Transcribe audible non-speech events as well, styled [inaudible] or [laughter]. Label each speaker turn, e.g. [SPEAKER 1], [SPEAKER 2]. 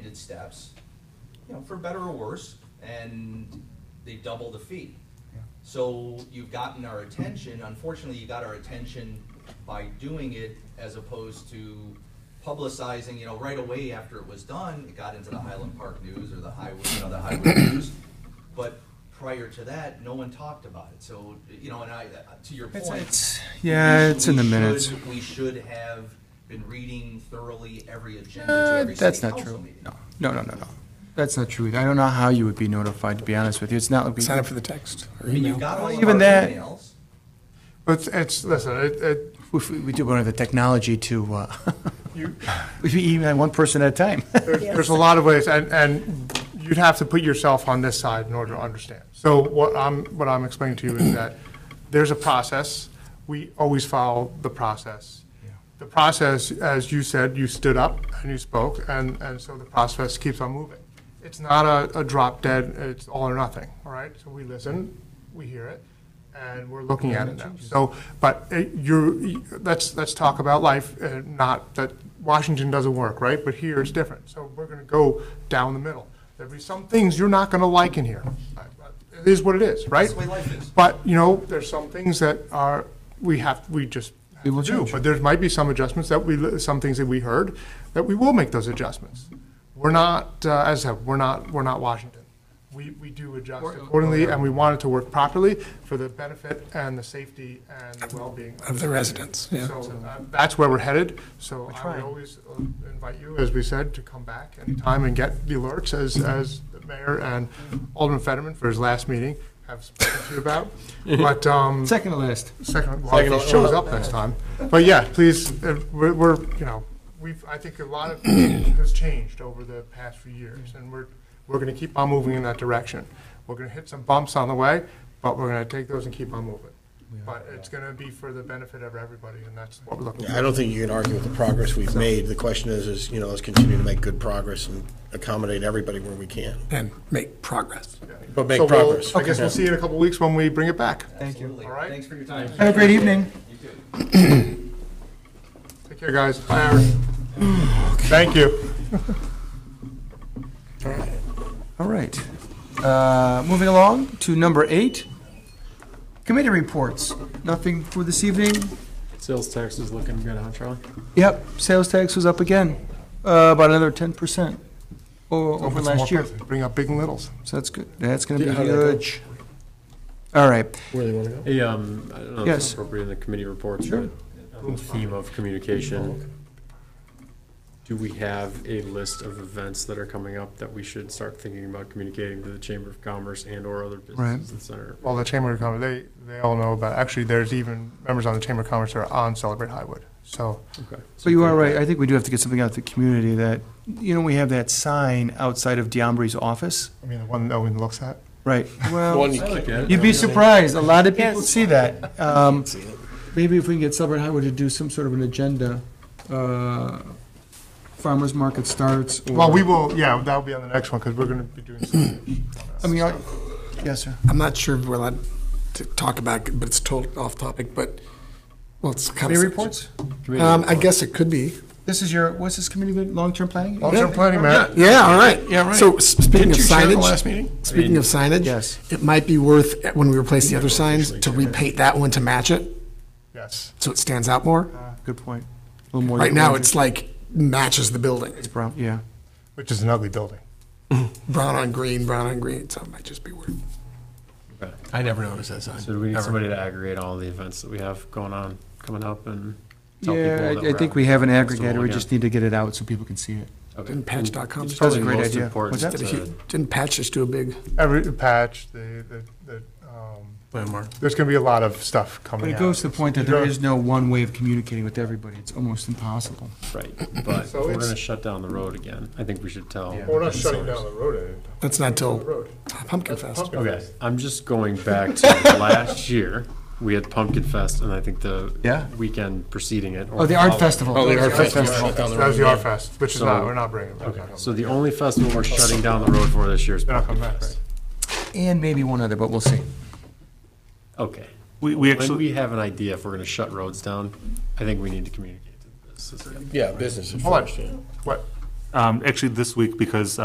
[SPEAKER 1] steps, you know, for better or worse, and they double the fee. So you've gotten our attention, unfortunately, you got our attention by doing it as opposed to publicizing, you know, right away after it was done, it got into the Highland Park News or the Highway, you know, the Highway [coughs] News. But prior to that, no one talked about it, so, you know, and I, uh, to your
[SPEAKER 2] It's-
[SPEAKER 1] point.
[SPEAKER 2] it's- yeah,
[SPEAKER 1] we
[SPEAKER 2] it's in the
[SPEAKER 1] should-
[SPEAKER 2] minutes.
[SPEAKER 1] We should have been reading thoroughly every agenda to
[SPEAKER 2] Uh,
[SPEAKER 1] every
[SPEAKER 2] That's
[SPEAKER 1] city
[SPEAKER 2] not
[SPEAKER 1] council
[SPEAKER 2] true.
[SPEAKER 1] meeting.
[SPEAKER 2] No, no, no, no, no. That's not true. I don't know how you would be notified, to be honest with you. It's not like we.
[SPEAKER 3] Sign up for the text or
[SPEAKER 1] I mean, You've
[SPEAKER 3] email.
[SPEAKER 1] got all of
[SPEAKER 2] Even
[SPEAKER 1] our
[SPEAKER 2] that-
[SPEAKER 1] emails.
[SPEAKER 4] But it's, listen, it, it,
[SPEAKER 2] If we we do want to have the technology to, uh, [laughs]
[SPEAKER 4] you,
[SPEAKER 2] we email one person at a time. [laughs]
[SPEAKER 4] there's, there's a lot of ways, and, and you'd have to put yourself on this side in order to understand. So what I'm, what I'm explaining to you is that there's a process. We always follow the process. The process, as you said, you stood up and you spoke, and, and so the process keeps on moving. It's not a, a drop dead, it's all or nothing, all right? So we listen, we hear it, and we're looking at it now. So, but uh, you're, let's, let's talk about life, uh, not that Washington doesn't work, right? But here it's different. So we're gonna go down the middle. There'll be some things you're not gonna like in here. I- I- It is what it is, right?
[SPEAKER 1] That's the way life is.
[SPEAKER 4] But, you know, there's some things that are, we have, we just
[SPEAKER 2] We will
[SPEAKER 4] have to do.
[SPEAKER 2] change.
[SPEAKER 4] But there might be some adjustments that we, some things that we heard, that we will make those adjustments. We're not, uh, as I said, we're not, we're not Washington. We, we do adjust accordingly, and we want it to work properly for the benefit and the safety and the well-being.
[SPEAKER 3] Of the residents, yeah.
[SPEAKER 4] So uh, that's where we're headed, so I would
[SPEAKER 2] trying.
[SPEAKER 4] always uh, invite you, as we said, to come back anytime and get the alerts as, as the mayor and Alderman Fetterman for his last meeting have spoken to you about. But, um,
[SPEAKER 2] Second to last.
[SPEAKER 4] second, well, if he shows up next time. But yeah, please, uh, we're, we're, you know, we've, I think a lot of has changed over the past few years, and we're, we're gonna keep on moving in that direction. We're gonna hit some bumps on the way, but we're gonna take those and keep on moving. But it's gonna be for the benefit of everybody, and that's what we're looking
[SPEAKER 5] I
[SPEAKER 4] for.
[SPEAKER 5] don't think you can argue with the progress we've made. The question is, is, you know, let's continue to make good progress and accommodate everybody where we can.
[SPEAKER 3] And make progress.
[SPEAKER 5] But make
[SPEAKER 4] So we'll-
[SPEAKER 5] progress.
[SPEAKER 4] I guess we'll see you in a couple weeks when we bring it back.
[SPEAKER 2] Thank you.
[SPEAKER 1] Absolutely.
[SPEAKER 4] All right.
[SPEAKER 1] Thanks for your time.
[SPEAKER 2] Have a great evening.
[SPEAKER 4] Take care, guys. Bye, Aaron. Thank you.
[SPEAKER 2] All right. Uh, Moving along to number eight, committee reports. Nothing for this evening.
[SPEAKER 6] Sales tax is looking good, huh, Charlie?
[SPEAKER 2] Yep, sales tax was up again, uh, about another 10% o-
[SPEAKER 4] Open
[SPEAKER 2] over
[SPEAKER 4] some more
[SPEAKER 2] last year.
[SPEAKER 4] places. Bring up Big and Littles.
[SPEAKER 2] So that's good. That's going to be
[SPEAKER 5] Yeah, how'd that go?
[SPEAKER 2] huge. All right.
[SPEAKER 5] Where do you want to go?
[SPEAKER 6] Hey, um, I don't know if it's
[SPEAKER 2] Yes.
[SPEAKER 6] appropriate in the committee reports, but on the theme of communication, do we have a list of events that are coming up that we should start thinking about communicating to the Chamber of Commerce and or other businesses in the center?
[SPEAKER 4] Well, the Chamber of Commerce, they, they all know about, actually, there's even members on the Chamber of Commerce that are on Celebrate Highwood. So,
[SPEAKER 6] Okay.
[SPEAKER 2] So you are right. I think we do have to get something out to the community that, you know, we have that sign outside of Diombri's office.
[SPEAKER 4] I mean, the one no one looks at.
[SPEAKER 2] Right. Well,
[SPEAKER 5] One, you
[SPEAKER 6] I like that.
[SPEAKER 2] you'd be surprised. A lot of people
[SPEAKER 7] Yes.
[SPEAKER 2] see that. Um,
[SPEAKER 5] see it.
[SPEAKER 2] Maybe if we can get Celebrate Highway to do some sort of an agenda, uh, farmer's market starts. or-
[SPEAKER 4] Well, we will, yeah, that'll be on the next one, because we're going to be doing some.
[SPEAKER 2] I mean, I- yes, sir.
[SPEAKER 3] I'm not sure if we're allowed to talk about, it, but it's total off topic, but, well, it's kind of.
[SPEAKER 2] Committee reports?
[SPEAKER 6] Committee
[SPEAKER 3] Um, I
[SPEAKER 6] report.
[SPEAKER 3] guess it could be.
[SPEAKER 2] This is your, what's this committee, good? long-term planning?
[SPEAKER 4] Long-term planning, Matt.
[SPEAKER 3] Yeah, all right.
[SPEAKER 2] Yeah, right.
[SPEAKER 3] So s- speaking
[SPEAKER 4] Didn't
[SPEAKER 3] of
[SPEAKER 4] you share the last
[SPEAKER 3] signage,
[SPEAKER 4] meeting?
[SPEAKER 3] speaking of signage.
[SPEAKER 2] Yes.
[SPEAKER 3] It might be worth, when we replace the other signs, to repaint that one to match it,
[SPEAKER 4] Yes.
[SPEAKER 3] so it stands out more.
[SPEAKER 2] Good point. A little more.
[SPEAKER 3] Right now, it's like matches the building.
[SPEAKER 2] It's brown, yeah.
[SPEAKER 4] Which is an ugly building.
[SPEAKER 3] Brown on green, brown on green, so it might just be worth. I never noticed that sign.
[SPEAKER 6] So do we need somebody to aggregate all the events that we have going on, coming up and tell people
[SPEAKER 2] Yeah,
[SPEAKER 6] that
[SPEAKER 2] I- I
[SPEAKER 6] we're
[SPEAKER 2] think
[SPEAKER 6] at
[SPEAKER 2] we have an
[SPEAKER 6] the festival
[SPEAKER 2] aggregator. We
[SPEAKER 6] again?
[SPEAKER 2] just need to get it out so people can see it.
[SPEAKER 6] Okay.
[SPEAKER 3] And patch.com.
[SPEAKER 6] It's
[SPEAKER 3] That's a
[SPEAKER 6] probably
[SPEAKER 2] great
[SPEAKER 6] most
[SPEAKER 2] idea.
[SPEAKER 6] important
[SPEAKER 2] What's
[SPEAKER 3] Did a
[SPEAKER 6] to-
[SPEAKER 3] huge- Didn't Patch just do a big?
[SPEAKER 4] Every patch, the, the, the, um,
[SPEAKER 3] Landmark.
[SPEAKER 4] there's going to be a lot of stuff coming
[SPEAKER 2] But
[SPEAKER 4] out.
[SPEAKER 2] it goes to the point that there is no one way of communicating with everybody. It's almost impossible.
[SPEAKER 6] Right, but if
[SPEAKER 4] So
[SPEAKER 6] we're
[SPEAKER 4] it's-
[SPEAKER 6] gonna shut down the road again. I think we should tell.
[SPEAKER 4] We're not
[SPEAKER 6] business
[SPEAKER 4] shutting
[SPEAKER 6] owners.
[SPEAKER 4] down the road
[SPEAKER 3] That's not
[SPEAKER 4] any, the
[SPEAKER 3] till
[SPEAKER 4] road.
[SPEAKER 3] Pumpkin Fest.
[SPEAKER 4] Pumpkin
[SPEAKER 6] Okay,
[SPEAKER 4] Fest.
[SPEAKER 6] I'm just going back to last year, we had Pumpkin Fest, and I think the
[SPEAKER 2] Yeah.
[SPEAKER 6] weekend preceding it. or
[SPEAKER 2] Oh, the art
[SPEAKER 6] following-
[SPEAKER 2] festival.
[SPEAKER 5] Oh, the art festival.
[SPEAKER 4] That was the R Fest, which is
[SPEAKER 6] So-
[SPEAKER 4] not, we're not bringing it back.
[SPEAKER 6] Okay, so the only festival we're shutting down the road for this year is
[SPEAKER 4] They're not
[SPEAKER 6] Pumpkin
[SPEAKER 4] coming back, right?
[SPEAKER 6] Fest.
[SPEAKER 2] And maybe one other, but we'll see.
[SPEAKER 6] Okay.
[SPEAKER 8] We, we
[SPEAKER 6] When
[SPEAKER 8] actually,
[SPEAKER 6] we have an idea if we're gonna shut roads down, I think we need to communicate to the businesses.
[SPEAKER 5] Yeah, business at
[SPEAKER 4] Hold on.
[SPEAKER 5] first, yeah.
[SPEAKER 4] What?
[SPEAKER 7] Um, Actually, this week, because